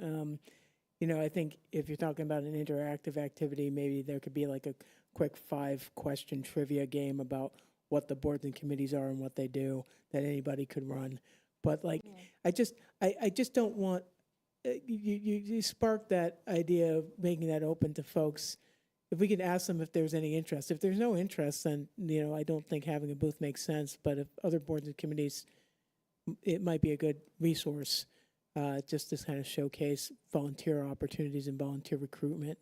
Um, you know, I think if you're talking about an interactive activity, maybe there could be like a quick five-question trivia game about what the boards and committees are and what they do that anybody could run. But like, I just, I, I just don't want, uh, you, you, you sparked that idea of making that open to folks. If we could ask them if there's any interest. If there's no interest, then, you know, I don't think having a booth makes sense. But if other boards and committees, m- it might be a good resource uh, just to kind of showcase volunteer opportunities and volunteer recruitment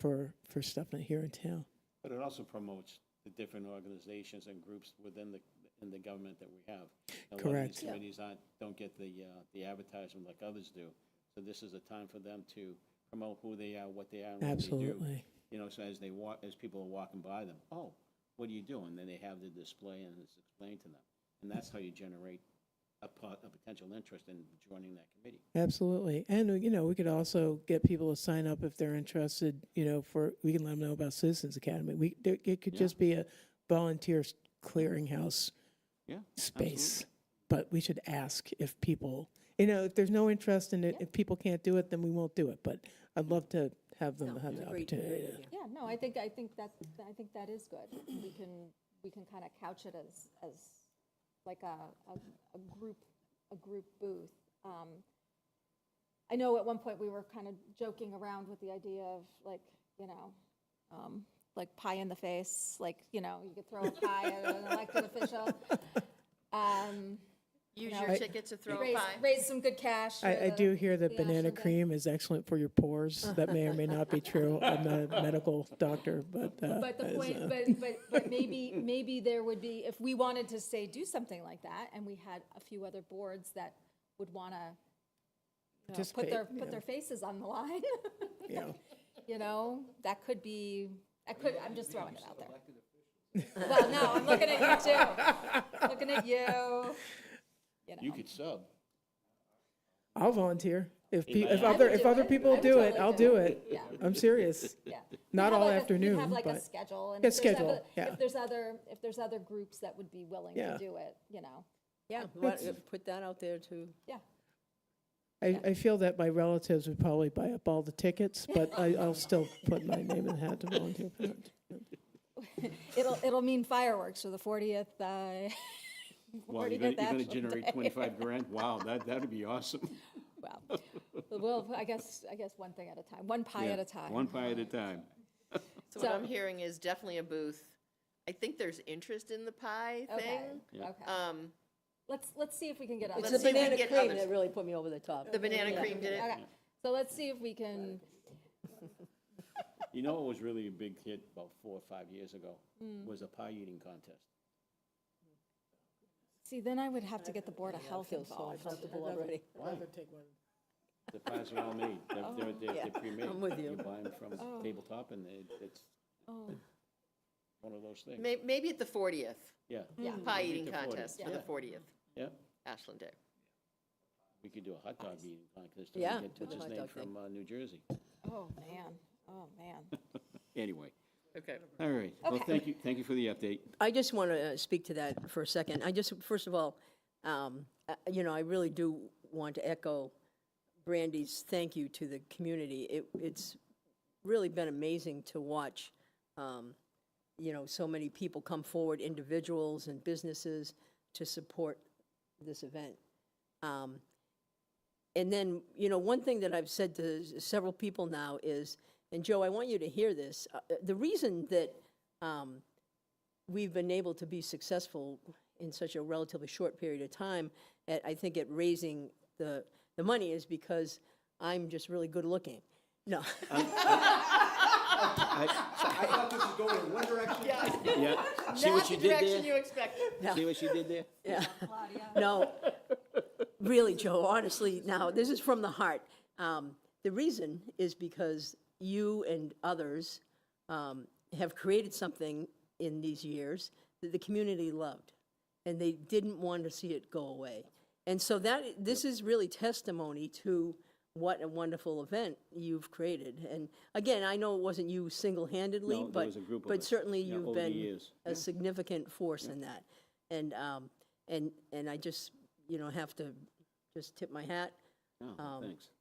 for, for stuff here in town. But it also promotes the different organizations and groups within the, in the government that we have. A lot of Correct. these committees aren't, don't get the, uh, the advertisement like others do. So this is a time for them to promote who they are, what they are, and what they do. Absolutely. You know, so as they walk, as people are walking by them, oh, what are you doing? Then they have the display and it's explained to them. And that's how you generate a pot, a potential interest in joining that committee. Absolutely. And, you know, we could also get people to sign up if they're interested, you know, for, we can let them know about Citizens Academy. We, there- it could Yeah. just be a volunteer s- clearinghouse Yeah. space. But we should ask if people, you know, if there's no interest in it, if people can't do it, then we won't do it. But I'd love to have them have the opportunity. to- Yeah, no, I think, I think that, I think that is good. We can, we can kind of couch it as, as like a, a, a group, a group booth. Um, I know at one point we were kind of joking around with the idea of like, you know, um, like pie in the face, like, you know, you could throw a pie at an elected official. Um, Use No. your I- ticket to throw a raise, pie. raise some good cash. I, for I the- do hear that the banana National Day. cream is excellent for your pores. That may or may not be true. I'm not a medical doctor, but, uh, But the as, uh, point, but, but, but maybe, maybe there would be, if we wanted to say, do something like that, and we had a few other boards that would wanna, you know, put their, Participate, yeah. put their faces on the line, you know. you know, that could be, I could, I'm just throwing it out there. Well, no, I'm looking at you too, looking at you, you You know. could sub. I'll volunteer. If, pe- might if not. other, I would if do other it. people I would do it, totally I'll do do it. it. Yeah. I'm serious. Yeah. We'd Not have all like a- we'd afternoon, Have like a but- schedule. and Yeah, if there's schedule, other- yeah. If there's other, if there's other groups that would be willing Yeah. to do it, you know, Yeah, why- put that out there too. yeah. I, I feel that my relatives would probably buy up all the tickets, but I, I'll still put my name in the hat to volunteer for that. It'll, it'll mean fireworks for the 40th, uh, Wow, Already you're gonna, you're did that gonna someday. generate twenty-five grand? Wow, that, that'd be awesome. well, well, I guess, I guess one thing at a time, one pie Yeah, at a time. One pie at a time. So what I'm So- hearing is definitely a booth. I think there's interest in the pie Okay, thing. Yeah. okay. Um, Let's, let's see if we can get It's others. the Let's see if we can banana get cream others. that really put me over the top. the banana cream did it. Okay, so let's see if we can, You know what was really a big hit about four or five years ago? Was a pie eating contest. see, then I would have to get the Board of Health Feel so involved. uncomfortable already. The pies are all made, They're- they're, they're, yeah, they're pre-made. I'm with you. You buy them from tabletop and it, it's Oh, one of those things, May- Maybe at the 40th, yeah. Yeah. Mm. pie Maybe eating the 40th, contest for yeah. the 40th, Yeah, Ashland Day. we could do a hot dog eating contest. till we Yeah, get do a What's his hot name dog thing. from, uh, New Jersey? oh, man, oh, man. Anyway, Okay. all right. Well, Okay. thank you, thank you for the update. I just want to speak to that for a second. I just, first of all, um, uh, you know, I really do want to echo Brandy's thank you to the community. It, it's really been amazing to watch, um, you know, so many people come forward, individuals and businesses, to support this event. Um, And then, you know, one thing that I've said to s- several people now is, and Joe, I want you to hear this, uh, uh, the reason that um, we've been able to be successful in such a relatively short period of time, at, I think at raising the, the money is because I'm just really good looking. No, I thought this was going in one direction. Yeah, see Not what the you did direction you expected. there? See what you did there? no, really, Joe, honestly, now, this is from the heart. Um, The reason is because you and others um, have created something in these years that the community loved, and they didn't want to see it go away. And so that, this is really testimony to what a wonderful event you've created. And again, I know it wasn't you single-handedly, No, there but, was a group of but us, certainly yeah, you've over the been years. a significant force in that. And, um, and, and I just, you know, have to just tip my hat No, Oh, thanks.